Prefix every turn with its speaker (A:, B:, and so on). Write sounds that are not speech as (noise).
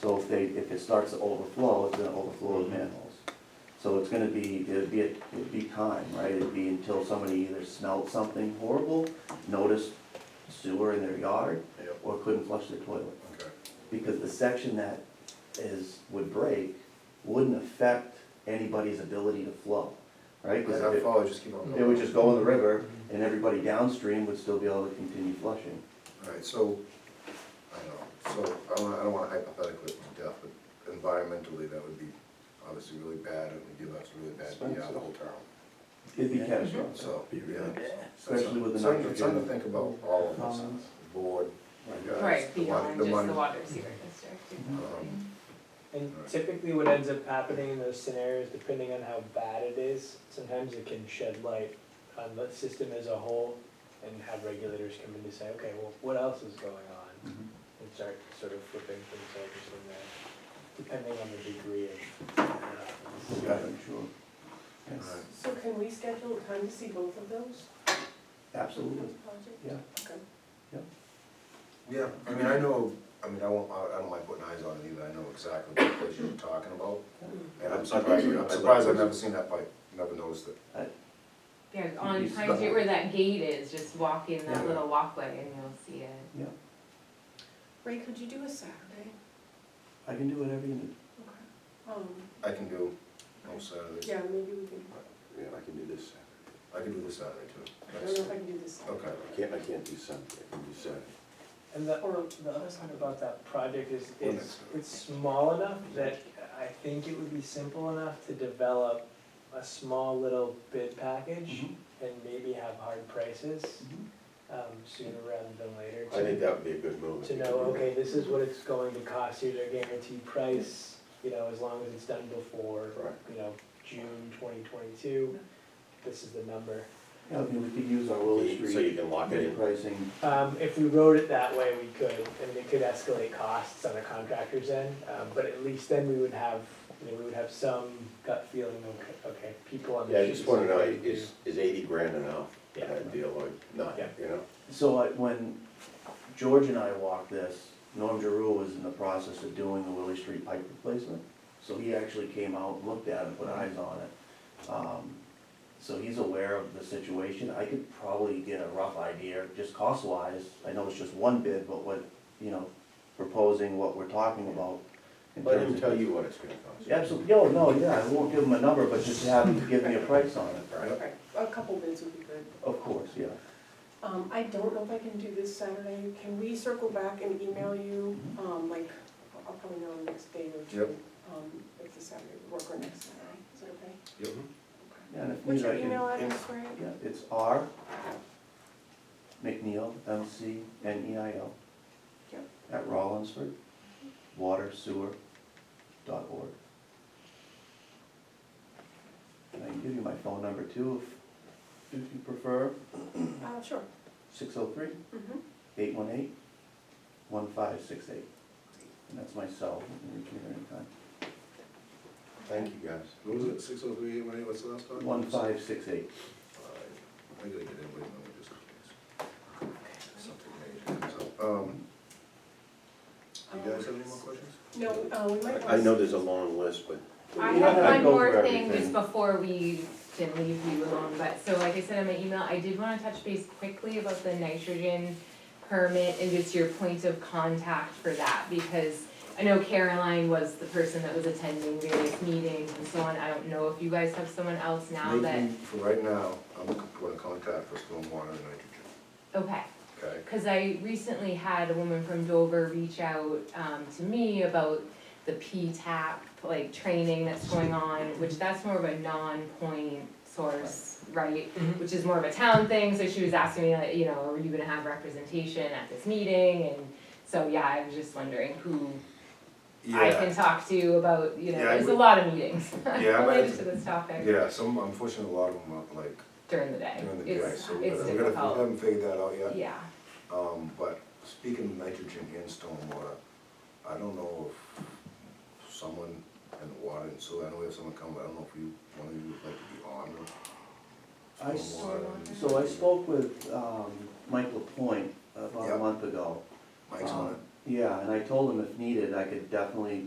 A: So if they, if it starts to overflow, it's gonna overflow with manholes. So it's gonna be, it'd be, it'd be time, right? It'd be until somebody either smelled something horrible, noticed sewer in their yard,
B: Yep,
A: or couldn't flush their toilet.
B: okay,
A: Because the section that is, would break, wouldn't affect anybody's ability to flow, right?
B: because
A: Because
B: that follow, just keep on
A: it
B: going.
A: would just go in the river, and everybody downstream would still be able to continue flushing.
B: Alright, so, I know, so, I don't, wanna- I don't wanna hypothetically to death, but environmentally, that would be obviously really bad, and would give us really bad PR the whole town,
A: It'd be catastrophic.
B: so, yeah.
A: Especially with the
B: Something- Something to
A: nitrogen.
B: think about, all of us,
A: Ponds.
B: the board, you guys,
C: Right,
B: the money-
C: beyond
B: the
C: just
B: money. Um,
C: the water sewer district. exactly.
D: And typically what ends up happening in those scenarios, depending on how bad it is, sometimes it can shed light on the system as a whole and have regulators come in to say, okay, well, what else is going on?
A: Mhm.
D: And start sort of flipping things over from there, depending on the degree of. what happens.
A: Yeah, I'm sure. Yes,
B: Alright,
E: So can we schedule a time to see both of those,
A: absolutely,
E: those projects?
A: yeah.
E: Okay.
B: Yeah, I mean, I know, I mean, I won't, I I don't mind putting eyes on it either, I know exactly what place you're talking about, and I'm surprised, I'm surprised I've never seen that pipe, never noticed it.
C: Yeah, on
A: He's-
C: Pine Street where that gate is, just walk in that
B: Yeah.
C: little walkway and you'll see it.
E: Ray, could you do a Saturday?
A: I can do whatever you need.
E: Okay. Um,
B: I can do, no Saturdays.
E: yeah, maybe we can,
F: Yeah, I can do this Saturday.
B: I can do this Saturday
E: I don't know if
B: too.
E: I can do this Saturday.
B: Okay.
F: I can't, I can't do Sunday, I can do Saturday.
D: And the,
E: Or
D: the other part about that project is, it's,
B: Limits.
D: it's small enough that I think it would be simple enough to develop a small little bid package
A: Mm-hmm.
D: and maybe have hard prices, um, sooner rather than later.
F: I think
D: to-
F: that would be a good move. if
D: To
F: you
D: know,
F: could do
D: okay, this is what it's going to cost, here's our guaranteed price, you know, as long as it's done before,
F: that. Right.
D: you know, June twenty twenty-two, this is the number.
A: Yeah, I mean, we could use our Willow
F: So you
A: Street
F: can lock it
A: bid
F: in.
A: pricing.
D: Um, if we wrote it that way, we could, and it could escalate costs on a contractor's end, um, but at least then we would have, you know, we would have some gut feeling, okay, okay, people on the.
F: Yeah, I just
D: streets
F: wanna know,
D: are gonna
F: is, is eighty grand enough for
D: Yeah.
F: that deal or not,
D: Yeah.
F: you know?
A: So I- when George and I walked this, Norm Giroux was in the process of doing the Willie Street pipe replacement. So he actually came out, and looked at it, put eyes on it. Um, So he's aware of the situation. I could probably get a rough idea, just cost-wise. I know it's just one bid, but what, you know, proposing what we're talking about. in
F: Let
A: terms
F: him
A: of-
F: tell you what it's gonna cost.
A: Absolutely, no, no, yeah, I won't give him a number, but just have him give me a price on it,
F: Right?
E: Okay, a couple bids would be good.
A: of course, yeah.
E: Um, I don't know if I can do this Saturday, can we circle back and email you, um, like, I'll probably know in the next day or two.
B: Yep.
E: Um, if the Saturday would work or next Saturday, is that okay?
B: Yep.
A: Yeah, and if needed,
E: What's your
A: I can-
E: email address, Ray?
A: Yeah, it's R McNeil, M C N E I L.
E: Yep.
A: At Rollinsford, water sewer dot org. And I can give you my phone number too, if, if you prefer,
E: Uh, sure.
A: six oh three,
E: Mm-hmm.
A: eight one eight, one five six eight. And that's my cell, you can reach me at any time.
F: Thank you, guys.
B: What was it, six oh three eight one eight, what's the last time?
A: One five six eight.
B: Alright, I gotta get in with them, just in case. Something major comes up. Um, do you guys have any more questions?
E: No, uh, we might.
F: I I know there's a long list, but
C: I
A: You don't have
C: have
A: to
C: one
A: go
C: more
A: for
C: thing just
A: everything.
C: before we can leave you alone, but, so like I said in my email, I did wanna touch base quickly about the nitrogen permit and just your point of contact for that, because I know Caroline was the person that was attending various meetings and so on, I don't know if you guys have someone else now that,
B: Maybe For right now, I'm gonna contact for stormwater and nitrogen,
C: okay.
B: okay?
C: Cause I recently had a woman from Dover reach out, um, to me about the P-TAP, like, training that's going on, which that's more of a non-point source, right?
B: Mm-hmm.
D: Mhm.
C: Which is more of a town thing, so she was asking me, like, you know, are you gonna have representation at this meeting, and so, yeah, I was just wondering who I
B: Yeah,
C: can talk to about, you know,
B: Yeah, I
C: there's a
B: would-
C: lot of meetings (laughs)
B: Yeah, I might-
C: related to this topic
B: yeah, some, unfortunately, a lot of them are like
C: during the day,
B: during the day,
C: it's,
B: so we're
C: it's
B: gonna, we're gonna, we
C: difficult,
B: haven't figured that out yet.
C: yeah,
B: Um, but speaking of nitrogen and stormwater, I don't know if someone in the water and sewer, I know we have someone come, but I don't know if you, one of you would like to be
A: I
B: on the
A: s-
B: stormwater. and-
A: so I spoke with, um, Mike Lapointe about
B: Yeah.
A: a month ago. Um,
B: Mike's on it,
A: Yeah, and I told him if needed, I could definitely